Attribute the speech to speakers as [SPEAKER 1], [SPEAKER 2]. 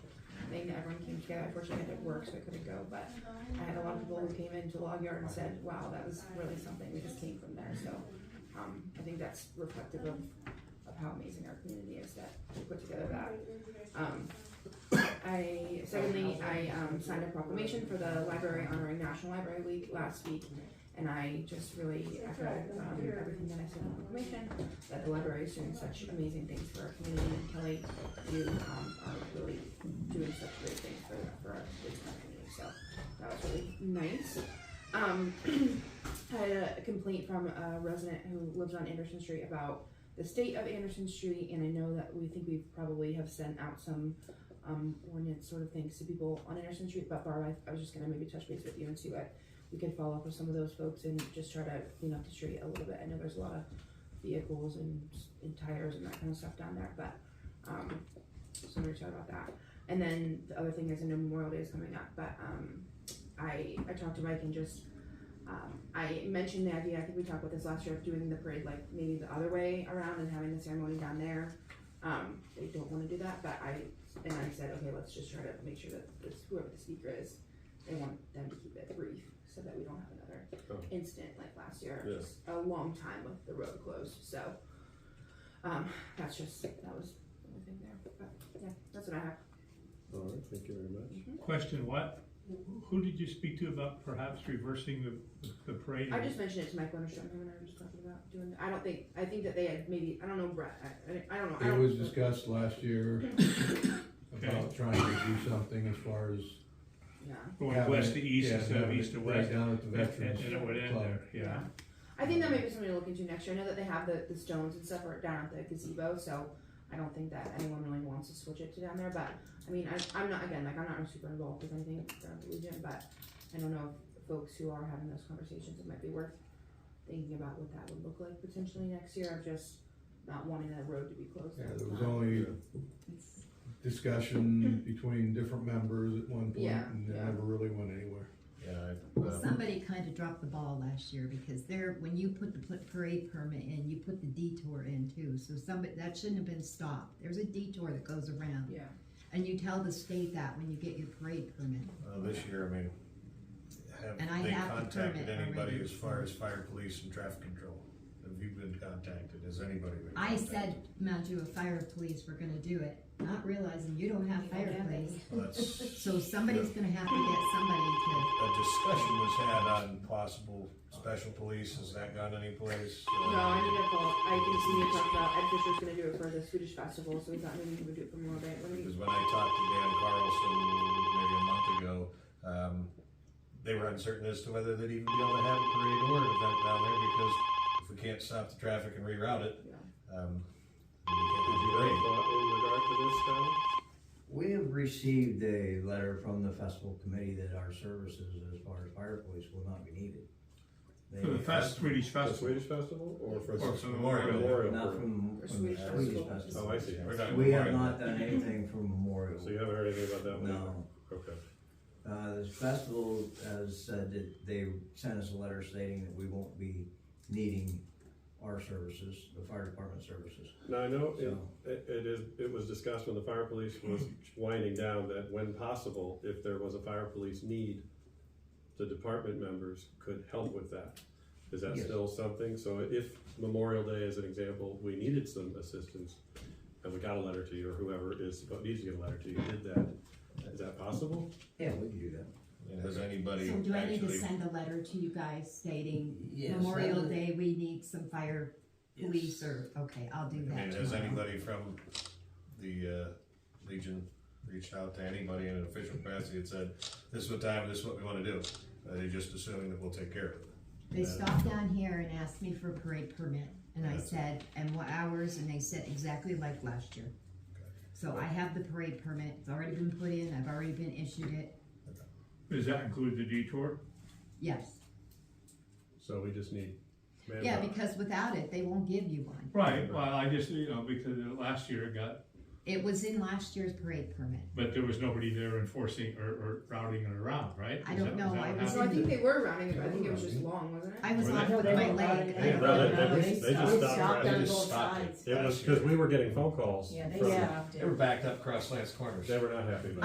[SPEAKER 1] thing that everyone came together. Unfortunately, I had to work, so I couldn't go, but I had a lot of people who came into Log Yard and said, wow, that was really something. We just came from there. So um, I think that's reflective of, of how amazing our community is that we put together that. Um, I, secondly, I um, signed a proclamation for the library honoring National Library Week last week. And I just really echo um, everything that I said in the proclamation, that the library is doing such amazing things for our community. And Kelly, you um, are really doing such great things for, for our kids in our community. So that was really nice. Um, I had a complaint from a resident who lives on Anderson Street about the state of Anderson Street, and I know that we think we probably have sent out some um, ordinance sort of things to people on Anderson Street. But Barb, I, I was just gonna maybe touch base with you and see what we could follow up with some of those folks and just try to clean up the street a little bit. I know there's a lot of vehicles and, and tires and that kind of stuff down there, but um, so I'm gonna chat about that. And then the other thing is, I know Memorial Day is coming up, but um, I I talked to Mike and just um, I mentioned the idea, I think we talked about this last year, of doing the parade like maybe the other way around and having the ceremony down there. Um, they don't wanna do that, but I, and I said, okay, let's just try to make sure that this, whoever the speaker is, they want them to keep it brief, so that we don't have
[SPEAKER 2] Oh.
[SPEAKER 1] another incident like last year.
[SPEAKER 2] Yeah.
[SPEAKER 1] Just A long time with the road closed, so, um, that's just, that was the only thing there, but, yeah, that's what I have.
[SPEAKER 2] All right, thank you very much.
[SPEAKER 3] Question, what, who did you speak to about perhaps reversing the, the parade?
[SPEAKER 1] I just mentioned it to Mike Winterstrom, him and I were just talking about doing, I don't think, I think that they had maybe, I don't know, Brett, I, I don't know. I
[SPEAKER 4] It
[SPEAKER 1] don't-
[SPEAKER 4] was discussed last year about trying to do something as far as.
[SPEAKER 1] Yeah,
[SPEAKER 3] Going
[SPEAKER 4] having
[SPEAKER 3] west
[SPEAKER 4] it-
[SPEAKER 3] to east
[SPEAKER 4] yeah,
[SPEAKER 3] instead of
[SPEAKER 4] having
[SPEAKER 3] east
[SPEAKER 4] it
[SPEAKER 3] to
[SPEAKER 4] right
[SPEAKER 3] west,
[SPEAKER 4] Down at the
[SPEAKER 3] and and- and it would
[SPEAKER 4] Veterans
[SPEAKER 3] end
[SPEAKER 4] Club.
[SPEAKER 3] there, yeah.
[SPEAKER 1] I think that may be something to look into next year, I know that they have the, the stones and stuff are down at the gazebo, so I don't think that anyone really wants to switch it to down there, but, I mean, I, I'm not, again, like, I'm not super involved with anything around the Legion, but I don't know if folks who are having those conversations, it might be worth thinking about what that would look like potentially next year, of just not wanting that road to be closed.
[SPEAKER 4] Yeah,
[SPEAKER 1] at the
[SPEAKER 4] there was
[SPEAKER 1] time.
[SPEAKER 4] only discussion between different members at one point
[SPEAKER 1] Yeah,
[SPEAKER 4] and it
[SPEAKER 1] yeah.
[SPEAKER 4] never really went anywhere.
[SPEAKER 2] Yeah,
[SPEAKER 5] Well,
[SPEAKER 6] uh,
[SPEAKER 5] somebody kind of dropped the ball last year because there, when you put the pl- parade permit in, you put the detour in too. So somebody, that shouldn't have been stopped. There's a detour that goes around.
[SPEAKER 1] Yeah.
[SPEAKER 5] And you tell the state that when you get your parade permit.
[SPEAKER 6] Uh, this year, I mean, have
[SPEAKER 5] And I
[SPEAKER 6] they
[SPEAKER 5] have the
[SPEAKER 6] contacted
[SPEAKER 5] permit
[SPEAKER 6] anybody
[SPEAKER 5] already.
[SPEAKER 6] as far as fire, police and traffic control? Have you been contacted? Has anybody been
[SPEAKER 5] I
[SPEAKER 6] contacted?
[SPEAKER 5] said, Mount Juah Fire Police were gonna do it, not realizing you don't have fire police.
[SPEAKER 6] Well, that's-
[SPEAKER 5] So somebody's gonna have to get somebody to,
[SPEAKER 6] A discussion was had on possible special police. Has that gone anyplace?
[SPEAKER 1] No, I need to call. I can see you talked about Ed Fisher's gonna do it for the Swedish festival, so we thought maybe he would do it for more of it. What do
[SPEAKER 6] Because
[SPEAKER 1] we-
[SPEAKER 6] when I talked to Dan Carlson maybe a month ago, um, they were uncertain as to whether they'd even be able to have a parade or an event down there because if we can't stop the traffic and reroute it, um, we can't
[SPEAKER 2] Did
[SPEAKER 6] have
[SPEAKER 2] you
[SPEAKER 6] a
[SPEAKER 2] have
[SPEAKER 6] parade.
[SPEAKER 2] a thought
[SPEAKER 7] We have received a letter from the festival committee that our services as far as fire police will not be needed.
[SPEAKER 3] For the
[SPEAKER 7] They-
[SPEAKER 3] fest, Swedish
[SPEAKER 2] in this, Tom? The
[SPEAKER 3] festival.
[SPEAKER 2] Swedish festival or for
[SPEAKER 3] Or
[SPEAKER 2] the
[SPEAKER 3] for
[SPEAKER 6] Memorial.
[SPEAKER 2] Memorial?
[SPEAKER 7] Not
[SPEAKER 2] Parade?
[SPEAKER 7] from,
[SPEAKER 1] Or
[SPEAKER 7] from the
[SPEAKER 1] Swedish festival.
[SPEAKER 7] Swedish
[SPEAKER 2] Oh,
[SPEAKER 7] festival.
[SPEAKER 2] I see.
[SPEAKER 6] We're not-
[SPEAKER 7] We have
[SPEAKER 6] Memorial.
[SPEAKER 7] not done anything for Memorial.
[SPEAKER 2] So you haven't heard anything about that one? either?
[SPEAKER 7] No.
[SPEAKER 2] Okay.
[SPEAKER 7] Uh, the festival has said that they sent us a letter stating that we won't be needing our services, the fire department services.
[SPEAKER 2] Now, I know it,
[SPEAKER 7] So-
[SPEAKER 2] it it is, it was discussed when the fire police was winding down that when possible, if there was a fire police need, the department members could help with that. Is that
[SPEAKER 7] Yes.
[SPEAKER 2] still something? So if Memorial Day, as an example, we needed some assistance and we got a letter to you or whoever is, needs to get a letter to you, did that, is that possible?
[SPEAKER 7] Yeah, we can do that.
[SPEAKER 6] And has anybody
[SPEAKER 5] so do I need to
[SPEAKER 6] actually
[SPEAKER 5] send a letter to you guys stating
[SPEAKER 7] Yes, that
[SPEAKER 5] Memorial
[SPEAKER 7] would-
[SPEAKER 5] Day, we need some fire police or, okay, I'll do
[SPEAKER 6] I
[SPEAKER 5] that
[SPEAKER 6] mean, has
[SPEAKER 5] tomorrow.
[SPEAKER 6] anybody from the uh, Legion reached out to anybody in an official capacity and said, this is what time, this is what we want to do? Are they just assuming that we'll take care of it?
[SPEAKER 5] They stopped down here and asked me for a parade permit, and I
[SPEAKER 6] Yeah.
[SPEAKER 5] said, and what hours, and they said exactly like last year. So I have the parade permit, it's already been put in, I've already been issued it,
[SPEAKER 3] Does that include the detour?
[SPEAKER 5] yes.
[SPEAKER 2] So we just need manpower.
[SPEAKER 5] Yeah, because without it, they won't give you one.
[SPEAKER 3] Right, well, I just, you know, because last year it got,
[SPEAKER 5] It was in last year's parade permit.
[SPEAKER 3] but there was nobody there enforcing or, or routing it around, right?
[SPEAKER 5] I
[SPEAKER 3] Is
[SPEAKER 5] don't
[SPEAKER 3] that- is
[SPEAKER 5] know,
[SPEAKER 3] that
[SPEAKER 5] I
[SPEAKER 3] what
[SPEAKER 5] was
[SPEAKER 1] So I
[SPEAKER 3] happened?
[SPEAKER 1] think they were rounding it, but I think it was just long, wasn't it?
[SPEAKER 5] I was
[SPEAKER 3] Were
[SPEAKER 5] off
[SPEAKER 3] they-
[SPEAKER 5] with
[SPEAKER 3] No,
[SPEAKER 5] my
[SPEAKER 3] they
[SPEAKER 5] leg. I
[SPEAKER 2] They-
[SPEAKER 5] don't
[SPEAKER 2] they-
[SPEAKER 5] know.
[SPEAKER 2] they- they just stopped.
[SPEAKER 6] They
[SPEAKER 2] it.
[SPEAKER 6] just stopped it.
[SPEAKER 2] It was because we were getting phone calls
[SPEAKER 8] Yeah, they
[SPEAKER 2] from,
[SPEAKER 8] stopped it.
[SPEAKER 6] They were backed up across Lance Corners.
[SPEAKER 2] they were not happy about it.